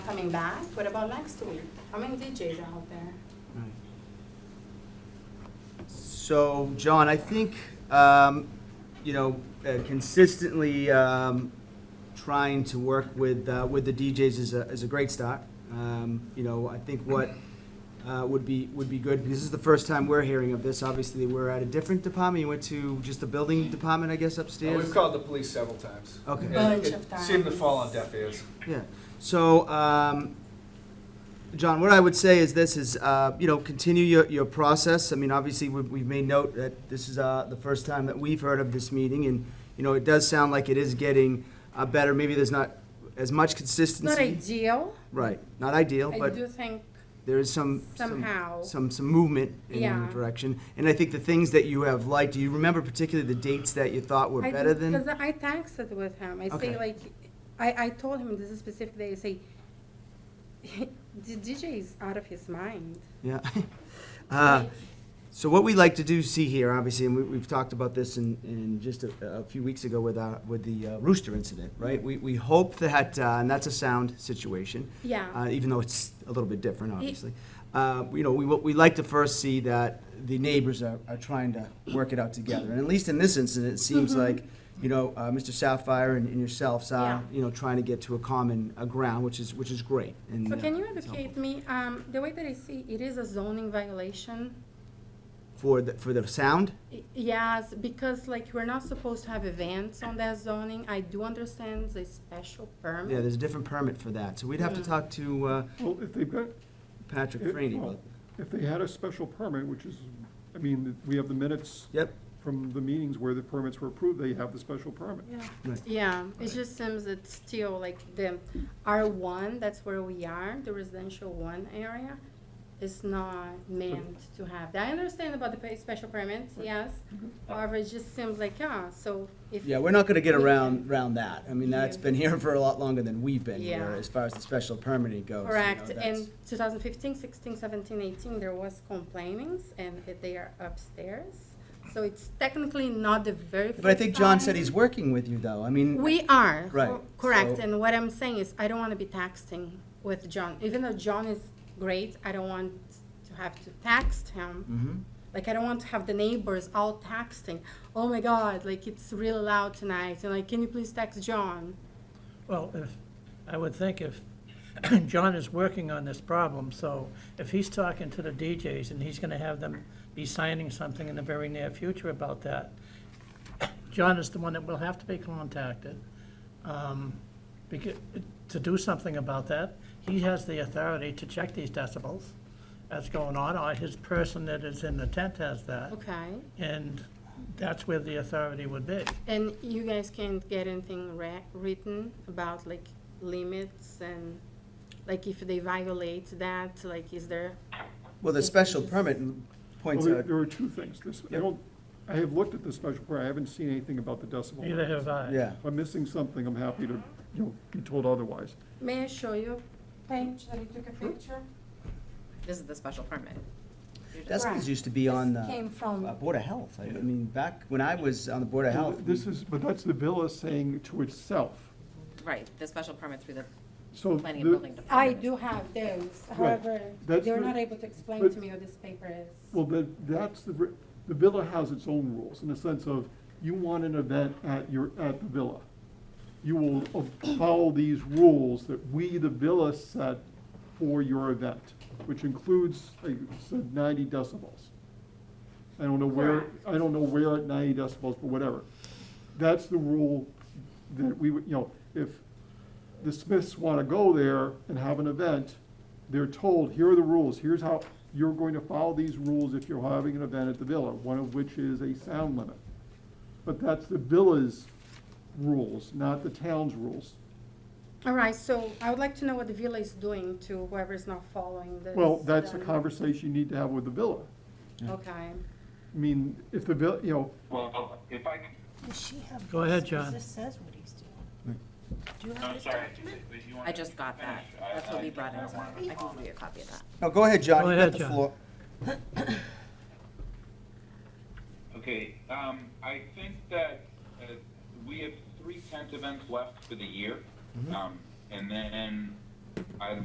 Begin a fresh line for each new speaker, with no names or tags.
coming back. What about next week? How many DJs are out there?
Right. So, John, I think, um, you know, uh, consistently, um, trying to work with, uh, with the DJs is a, is a great start. Um, you know, I think what, uh, would be, would be good, because this is the first time we're hearing of this, obviously, we're at a different department, you went to just the building department, I guess,
Uh,
upstairs?
We've called the police several times.
Okay.
And
Bunch
it
of
Seemed to fall on
times.
deaf ears.
Yeah. So, um, John, what I would say is this is, uh, you know, continue your, your process. I mean, obviously, we've, we've made note that this is, uh, the first time that we've heard of this meeting. And, you know, it does sound like it is getting, uh, better. Maybe there's not as much consistency.
Not ideal.
Right. Not ideal,
I
but
do think
there is some. some-
somehow.
Some, some movement in
Yeah.
the direction. And I think the things that you have liked, do you remember particularly the dates that you thought were
I
better
think-
than?
'cause I texted with him. I
Okay.
say like, I, I told him this is specific day. I say, the DJ is out of his mind.
Yeah. Uh, So what we like to do see here, obviously, and we, we've talked about this in, in just a, a few weeks ago with our, with the uh, rooster incident, right? We, we hope that, uh, and that's a sound situation.
Yeah.
Uh, even though it's a little bit different, obviously. Uh, you know, we, wa- we like to first see that the neighbors are, are trying to work it out together. And at least in this incident, it seems like, you know, uh, Mr. Sapphire and, and yourselves are,
Mm-hmm. Yeah.
you know, trying to get to a common, uh ground, which is, which is great. And,
So
uh,
can you
it's helpful.
educate me? Um, the way that I see it is a zoning violation.
For the, for the sound?
Y- Yes, because like we're not supposed to have events on that zoning. I do understand the special
Yeah,
permit.
there's a different permit for that, so we'd have to talk to uh,
Well, if they've got,
Patrick
if,
Franny.
well,
but-
if they had a special permit, which is, I mean, we have the minutes
Yep,
from the meetings where the permits were approved, they have the special permit.
right,
Yeah, it just seems it's still like the R one, that's where we are, the residential one area is not meant to have that. I understand about the pa- special permits, yes. However, it just seems like, yeah, so if.
yeah, we're not gonna get around, around that, I mean, that's been here for a lot longer than we've been here,
Yeah.
as far as the special permitting goes. you know,
Correct,
that's-
in 2015, 16, 17, 18, there was complainings and it- they are upstairs. So it's technically not the very first
But I think John said
time.
he's working with you, though, I mean.
We are.
Right,
cor- Correct,
so-
and what I'm saying is, I don't want to be texting with John, even though John is great, I don't want to have to text him.
Mhm.
Like, I don't want to have the neighbors all texting, oh my God, like, it's really loud tonight, and like, can you please text John?
Well, if, I would think if, John is working on this problem, so if he's talking to the DJs and he's gonna have them be signing something in the very near future about that, John is the one that will have to be contacted, um, becau- to do something about that. He has the authority to check these decibels that's going on, or his person that is in the tent has that.
Okay,
And that's where the authority would be.
and you guys can't get anything ra- written about like limits and, like, if they violate that, like, is there?
Well, the special permit
Well,
points
there
out,
there are two things, this, I
Yep.
don't, I have looked at the special permit, I haven't seen anything about the decibel.
Neither have I.
yeah,
If I'm missing something, I'm happy to, you know, be told otherwise.
May I show you page that I took a picture?
This is the special permit. You're just-
decibels used to be on
This
the uh,
came from
Board of Health, I I mean, back when I was on the Board of Health.
This is, but that's the villa saying to itself,
Right, the special permit through the
so.
planning
the-
and building
I
department.
do have those,
Right.
however,
That's
they were
the-
not able to explain
but-
to me what this paper is.
Well, the that's the, re- the villa has its own rules, in the sense of, you want an event at your, at the villa. You will o- follow these rules that we, the villa, set for your event, which includes, like, you said, ninety decibels. I don't know where, I don't know where at ninety decibels, but whatever. That's the rule that we, would you know, if the Smiths want to go there and have an event, they're told, here are the rules, here's how, you're going to follow these rules if you're having an event at the villa, one of which is a sound limit. But that's the villa's rules, not the town's rules.
All right, so I would like to know what the villa is doing to whoever's not following this.
Well, that's a
then.
conversation you need to have with the villa.
Um, Okay.
I mean, if the vill, you know,
Well, if I, can-
Does she have?
Go ahead,
this? 'Cause
John.
This says what he's doing. Do you have
I'm
this
sorry,
document?
if you want.
I just got that.
I-
That's what we
I-
brought in. I can give you a copy of that.
No, Oh, go ahead, John,
Go
you got
ahead,
the
John.
floor.
Okay, um, I think that, uh, we have three tent events left for the year. Um, and then I'd